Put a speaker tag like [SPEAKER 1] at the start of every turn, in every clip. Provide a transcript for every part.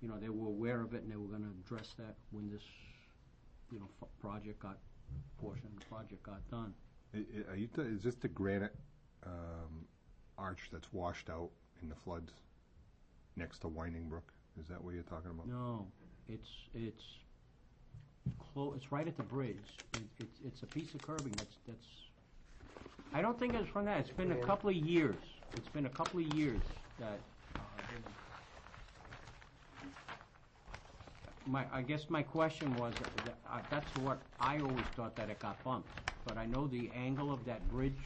[SPEAKER 1] you know, they were aware of it and they were gonna address that when this, you know, f- project got, portion of the project got done.
[SPEAKER 2] I- I- Are you, t- is this the granite um, arch that's washed out in the floods next to Winding Brook? Is that what you're talking about?
[SPEAKER 1] No, it's, it's clo, it's right at the bridge. It- It's, it's a piece of curbing that's, that's, I don't think it's from that. It's been a couple of years. It's been a couple of years that, uh, they- my, I guess my question was, that- uh, that's what, I always thought that it got bumped. But I know the angle of that bridge,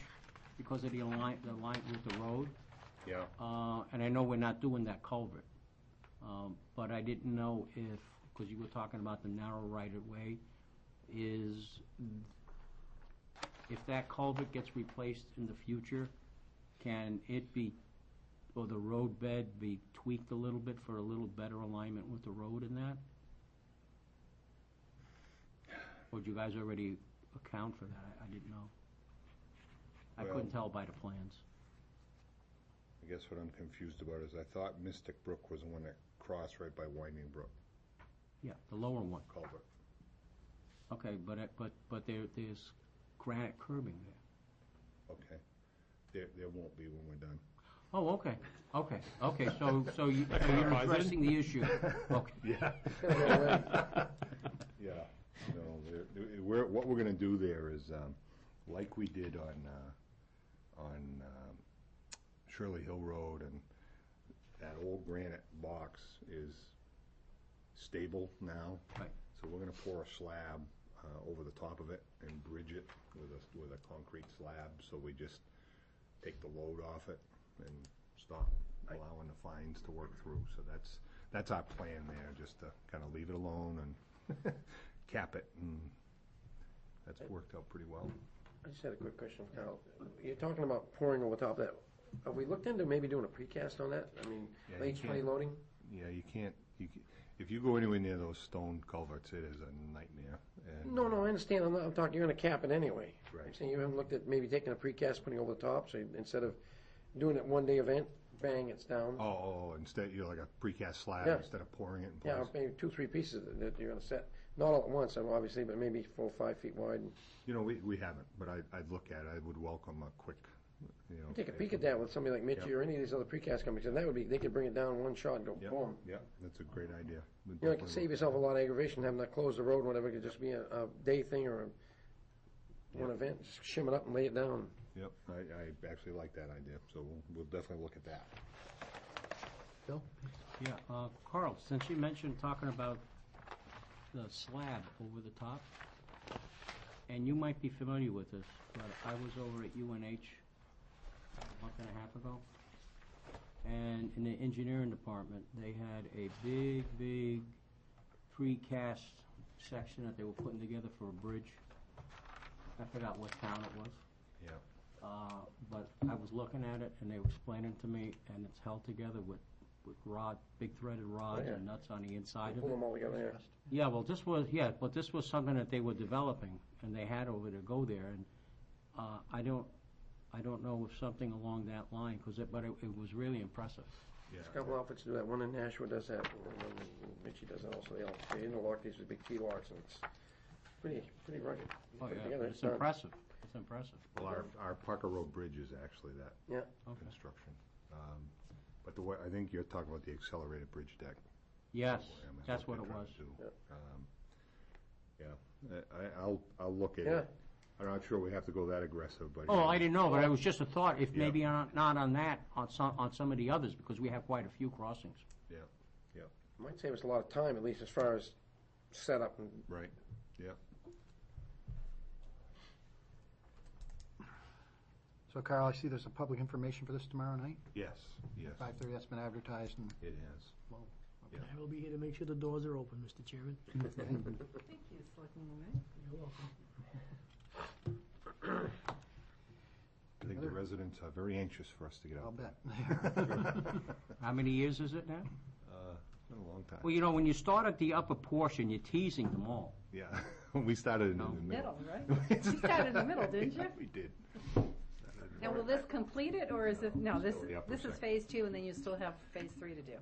[SPEAKER 1] because of the align, the line with the road,
[SPEAKER 3] Yeah.
[SPEAKER 1] uh, and I know we're not doing that culvert, um, but I didn't know if, because you were talking about the narrow right-of-way, is, if that culvert gets replaced in the future, can it be, or the road bed be tweaked a little bit for a little better alignment with the road in that? Or do you guys already account for that? I- I didn't know. I couldn't
[SPEAKER 3] Well-
[SPEAKER 1] tell by the plans.
[SPEAKER 2] I guess what I'm confused about is I thought Mystic Brook was the one that crossed right by Winding Brook
[SPEAKER 1] Yeah, the lower one.
[SPEAKER 2] culvert.
[SPEAKER 1] Okay, but, it- but, but there, there's granite curbing there.
[SPEAKER 2] Okay. There, there won't be when we're done.
[SPEAKER 1] Oh, okay, okay, okay, so, so you- so you're
[SPEAKER 3] clarifies it.
[SPEAKER 1] addressing the issue. Okay,
[SPEAKER 2] Yeah. Yeah, no, there- there- we're, what we're gonna do there is, um, like we did on, uh, on um, Shirley Hill Road and that old granite box is stable now.
[SPEAKER 1] Right.
[SPEAKER 2] So we're gonna pour a slab, uh, over the top of it and bridge it with a, with a concrete slab, so we just take the load off it and stop allowing the fines to work through. So that's, that's our plan there, just to kind of leave it alone and cap it. And that's worked out pretty well.
[SPEAKER 4] I just had a quick question, Kyle. You're talking about pouring over top of that. Have we looked into maybe doing a precast on that? I mean,
[SPEAKER 2] Yeah, you
[SPEAKER 4] late
[SPEAKER 2] can.
[SPEAKER 4] spray loading?
[SPEAKER 2] Yeah, you can't, you, ca- if you go anywhere near those stone culverts, it is a nightmare. And,
[SPEAKER 4] No, no,
[SPEAKER 2] uh,
[SPEAKER 4] I understand. I'm, not- I'm talking, you're gonna cap it anyway. I'm
[SPEAKER 2] Right.
[SPEAKER 4] saying you haven't looked at maybe taking a precast, putting over the top, so you- instead of doing it one day event, bang, it's down.
[SPEAKER 2] Oh, oh, oh, instead, you're like a precast slab
[SPEAKER 4] Yeah.
[SPEAKER 2] instead of pouring it in
[SPEAKER 4] Yeah,
[SPEAKER 2] place.
[SPEAKER 4] maybe two, three pieces that- that you're gonna set, not all at once, obviously, but maybe four, five feet wide. and
[SPEAKER 2] You know, we, we haven't, but I, I'd look at it. I would welcome a quick, you know.
[SPEAKER 4] Take a peek at that with somebody like Mitchy or any of these other precast companies, and that would be, they could bring it down in one shot and go
[SPEAKER 2] Yeah,
[SPEAKER 4] boom.
[SPEAKER 2] yeah, that's a great idea. We'd
[SPEAKER 4] You know,
[SPEAKER 2] definitely
[SPEAKER 4] it could
[SPEAKER 2] look
[SPEAKER 4] save
[SPEAKER 2] at
[SPEAKER 4] yourself
[SPEAKER 2] it.
[SPEAKER 4] a lot of aggravation, having to close the road, whatever, it could just be a, a day thing or a, one event, just shim it up and lay it down.
[SPEAKER 2] Yep, I, I actually like that idea, so we'll, we'll definitely look at that.
[SPEAKER 1] Bill? Yeah, uh, Carl, since you mentioned talking about the slab over the top, and you might be familiar with this, but I was over at UNH a month and a half ago, and in the engineering department, they had a big, big precast section that they were putting together for a bridge. I forgot what town it was.
[SPEAKER 2] Yeah.
[SPEAKER 1] Uh, but I was looking at it, and they were explaining to me, and it's held together with, with rod, big threaded rods
[SPEAKER 4] yeah.
[SPEAKER 1] and nuts on the inside of
[SPEAKER 4] Pull
[SPEAKER 1] it.
[SPEAKER 4] them all together, yeah.
[SPEAKER 1] Yeah, well, this was, yeah, but this was something that they were developing, and they had over to go there, and, uh, I don't, I don't know if something along that line, 'cause it, but it, it was really impressive.
[SPEAKER 2] Yeah.
[SPEAKER 4] There's a couple outfits do that, one in Nashua does that, and one in- Mitchy does that also, they all, they interlock these with big T locks, and it's pretty, pretty rugged. You
[SPEAKER 1] Oh,
[SPEAKER 4] put it
[SPEAKER 1] yeah,
[SPEAKER 4] together,
[SPEAKER 1] it's
[SPEAKER 4] done.
[SPEAKER 1] impressive, it's impressive.
[SPEAKER 2] Well, our, our Parker Road Bridge is actually that
[SPEAKER 4] Yeah,
[SPEAKER 1] Okay.
[SPEAKER 2] construction. Um, But the way, I think you're talking about the accelerated bridge deck.
[SPEAKER 1] Yes,
[SPEAKER 2] program is
[SPEAKER 1] that's what
[SPEAKER 2] they're
[SPEAKER 1] it
[SPEAKER 2] trying
[SPEAKER 1] was.
[SPEAKER 2] to do. Um, Yeah, I- I, I'll, I'll look at
[SPEAKER 4] Yeah.
[SPEAKER 2] it. I'm not sure we have to go that aggressive, but.
[SPEAKER 1] Oh, I didn't know, but it was just a thought, if
[SPEAKER 2] Yeah.
[SPEAKER 1] maybe on- not on that, on some, on some of the others, because we have quite a few crossings.
[SPEAKER 2] Yeah, yeah,
[SPEAKER 4] might save us a lot of time, at least as far as setup and
[SPEAKER 2] right, yeah.
[SPEAKER 5] So Carl, I see there's a public information for this tomorrow night,
[SPEAKER 2] Yes, yes,
[SPEAKER 5] five thirty, that's been advertised and
[SPEAKER 2] it has.
[SPEAKER 6] I will be here to make sure the doors are open, Mr. Chairman.
[SPEAKER 7] Thank you, Selectman Wainwright.
[SPEAKER 6] You're welcome.
[SPEAKER 2] I think the residents are very anxious for us to get
[SPEAKER 5] I'll
[SPEAKER 2] out there.
[SPEAKER 5] bet.
[SPEAKER 1] How many years is it now?
[SPEAKER 2] It's been a long time.
[SPEAKER 1] Well, you know, when you start at the upper portion, you're teasing them all.
[SPEAKER 2] Yeah, we started in the
[SPEAKER 1] No.
[SPEAKER 2] middle.
[SPEAKER 7] Middle, right? You started in the middle, didn't you?
[SPEAKER 2] Yeah, We did.
[SPEAKER 7] Now, will this complete it, or is this, no, this,
[SPEAKER 2] Still the upper
[SPEAKER 7] this is
[SPEAKER 2] section.
[SPEAKER 7] phase two, and then you still have phase three to do?